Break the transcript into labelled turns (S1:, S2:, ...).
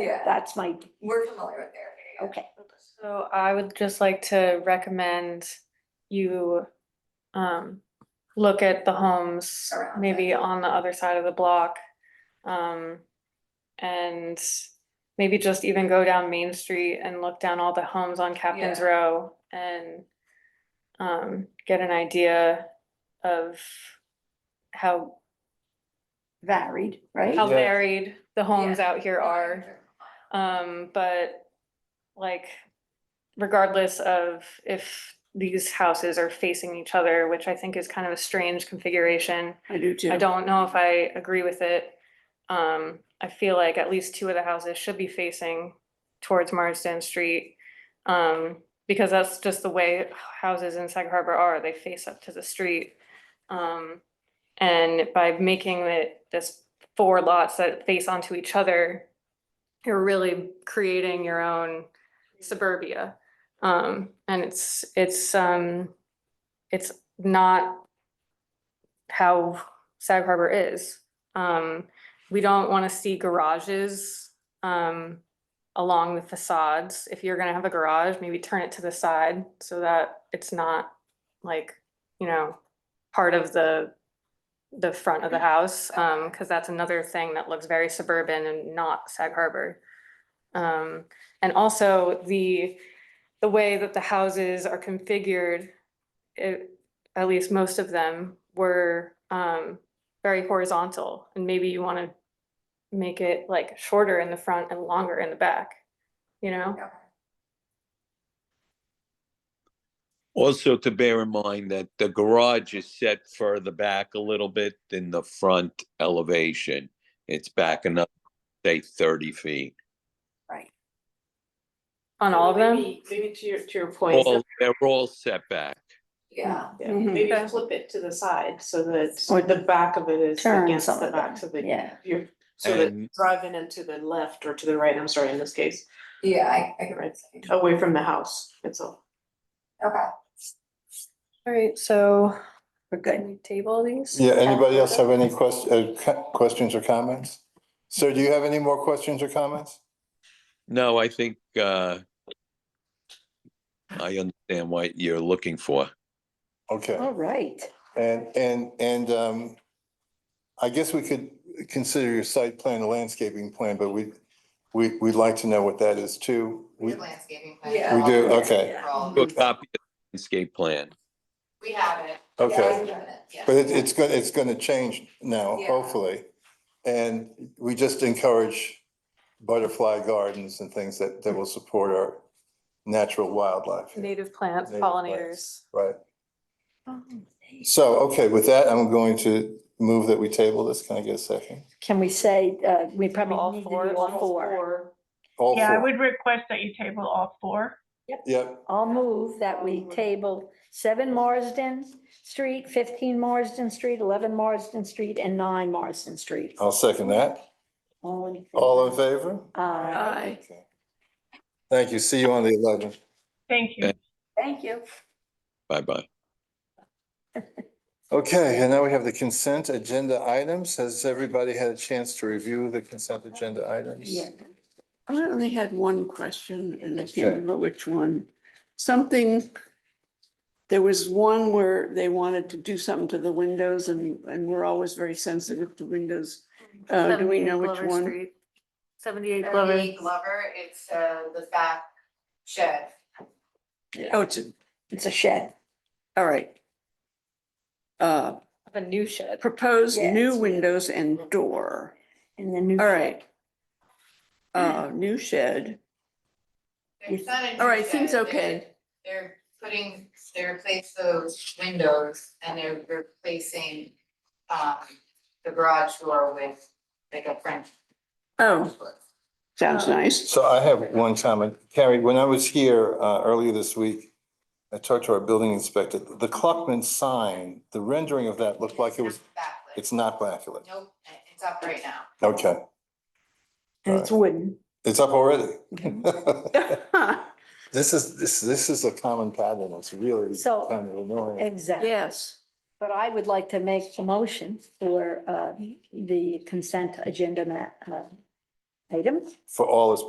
S1: Yeah.
S2: That's my,
S1: We're familiar with
S3: Oh,
S1: their
S2: okay.
S4: So I would just like to recommend you um look at the homes
S1: Around it.
S4: maybe on the other side of the block. Um and maybe just even go down Main Street and look down all the homes on Captain's
S1: Yeah.
S4: Row and um get an idea of how
S2: varied, right?
S4: how
S5: Yeah.
S4: varied the homes out here are.
S1: Sure.
S4: Um, but like regardless of if these houses are facing each other, which I think is kind of a strange configuration.
S2: I do too.
S4: I don't know if I agree with it. Um, I feel like at least two of the houses should be facing towards Marsden Street. Um, because that's just the way houses in Sag Harbor are, they face up to the street. Um, and by making it this four lots that face onto each other, you're really creating your own suburbia. Um, and it's, it's, um, it's not how Sag Harbor is. Um, we don't want to see garages, um, along the facades. If you're gonna have a garage, maybe turn it to the side so that it's not like, you know, part of the, the front of the house, um, because that's another thing that looks very suburban and not Sag Harbor. Um, and also the, the way that the houses are configured, it, at least most of them were, um, very horizontal and maybe you want to make it like shorter in the front and longer in the back, you know?
S1: Okay.
S5: Also to bear in mind that the garage is set further back a little bit than the front elevation. It's back another, say thirty feet.
S4: On all of them?
S6: Maybe maybe to your, to your point,
S5: All, they're all set back.
S1: Yeah,
S6: yeah,
S2: Mhm.
S6: maybe
S4: Okay.
S6: flip it to the side so that
S2: Or
S6: the back of it is
S2: Turn
S6: against
S2: some
S6: the
S2: of
S6: back so
S2: them,
S6: that
S2: yeah.
S6: you're, so that
S5: And-
S6: driving into the left or to the right, I'm sorry, in this case,
S1: yeah, I, I can
S6: Right.
S1: write something.
S6: away from the house itself.
S3: Oh.
S1: Okay,
S4: All right, so
S2: We're good.
S4: can we table these?
S7: Yeah, anybody else have any quest- uh, co- questions or comments? Sir, do you have any more questions or comments?
S5: No, I think, uh, I understand what you're looking for.
S7: Okay,
S2: All right.
S7: and, and, and, um, I guess we could consider your site plan a landscaping plan, but we, we, we'd like to know what that is too.
S8: We
S7: We,
S8: have landscaping plan.
S1: Yeah.
S7: We do, okay.
S8: For all of
S5: Do a
S8: them.
S5: copy of the landscape plan.
S8: We have it,
S1: yeah, I
S7: okay,
S1: can write it, yeah.
S7: but it, it's gonna, it's gonna change now,
S1: Yeah.
S7: hopefully. And we just encourage butterfly gardens and things that, that will support our natural wildlife,
S4: Native plants,
S7: Native
S4: pollinators.
S7: plants. right?
S9: Oh,
S7: So, okay, with that, I'm going to move that we table this. Can I get a second?
S2: Can we say, uh, we
S4: All
S2: probably need to do
S4: four,
S2: all four?
S7: All
S9: Yeah, I
S7: four.
S9: would request that you table all four.
S7: Yep,
S2: I'll move that we table seven Marsden Street, fifteen Marsden Street, eleven Marsden Street, and nine Marsden Street.
S7: I'll second that.
S2: All in.
S7: Oh. All in favor?
S2: Uh,
S4: Aye.
S7: Okay. Thank you. See you on the eleventh.
S9: Thank you.
S5: Yeah.
S2: thank you.
S5: Bye-bye.
S7: Okay, and now we have the consent agenda items. Has everybody had a chance to review the consent agenda items?
S3: Yeah. I only had one question and I
S7: Sure.
S3: can't remember which one. Something, there was one where they wanted to do something to the windows and, and we're always very sensitive to windows. Uh, do we know which one?
S4: Seventy-eight Glover.
S8: Beverly Glover, it's uh the back shed.
S3: Oh, it's, a-
S2: It's a shed.
S3: all right. Uh,
S4: A new shed.
S3: propose new
S2: Yes.
S3: windows and door.
S2: And the new.
S3: All
S2: shed.
S3: right. Uh, new shed.
S8: It's not a new
S3: All right, seems
S8: shed,
S3: okay.
S8: They're they're putting, they replace those windows and they're replacing um the garage door with like a French
S3: Oh,
S8: door.
S3: sounds
S2: Uh,
S3: nice.
S7: So I have one comment. Carrie, when I was here uh, earlier this week, I talked to our building inspector. The Kluckman sign, the rendering of that looked like it was,
S8: It's not backlit.
S7: it's not backlit.
S8: Nope, it's up right now.
S7: Okay,
S2: And it's wooden.
S7: it's up already.
S3: Yes.
S7: This is, this, this is a common pattern. It's really
S2: So-
S7: kind of annoying.
S2: Exactly. But I would like to make a motion for uh, the consent agenda ma- uh, item.
S7: for all its